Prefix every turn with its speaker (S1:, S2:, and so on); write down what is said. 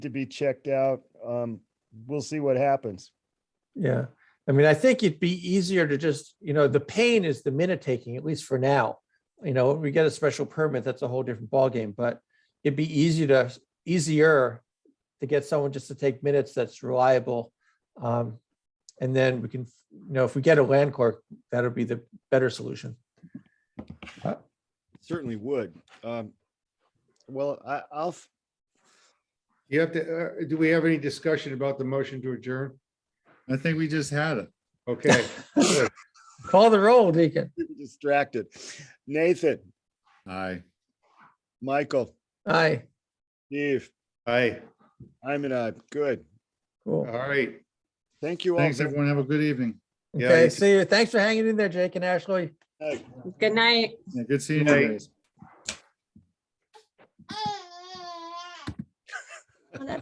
S1: to be checked out. Um, we'll see what happens.
S2: Yeah, I mean, I think it'd be easier to just, you know, the pain is the minute taking, at least for now. You know, we get a special permit, that's a whole different ballgame, but it'd be easier to, easier to get someone just to take minutes that's reliable. Um, and then we can, you know, if we get a land court, that'll be the better solution.
S1: Certainly would. Um, well, I, I'll, f-
S3: You have to, uh, do we have any discussion about the motion to adjourn?
S4: I think we just had it.
S3: Okay,
S2: Call the roll, Deacon.
S1: get distracted. Nathan,
S4: Aye.
S1: Michael,
S2: Aye,
S1: Steve,
S3: aye,
S1: I'm an I. Good.
S2: cool.
S3: all right.
S1: Thank you all.
S4: Thanks,
S1: very
S4: everyone. Have a good evening.
S3: Yeah, you
S2: Okay,
S3: can-
S2: see you. Thanks for hanging in there, Jake and Ashley.
S1: much.
S5: Good night.
S4: Yeah, Good seeing you
S3: Aye.
S4: guys.
S6: Oh.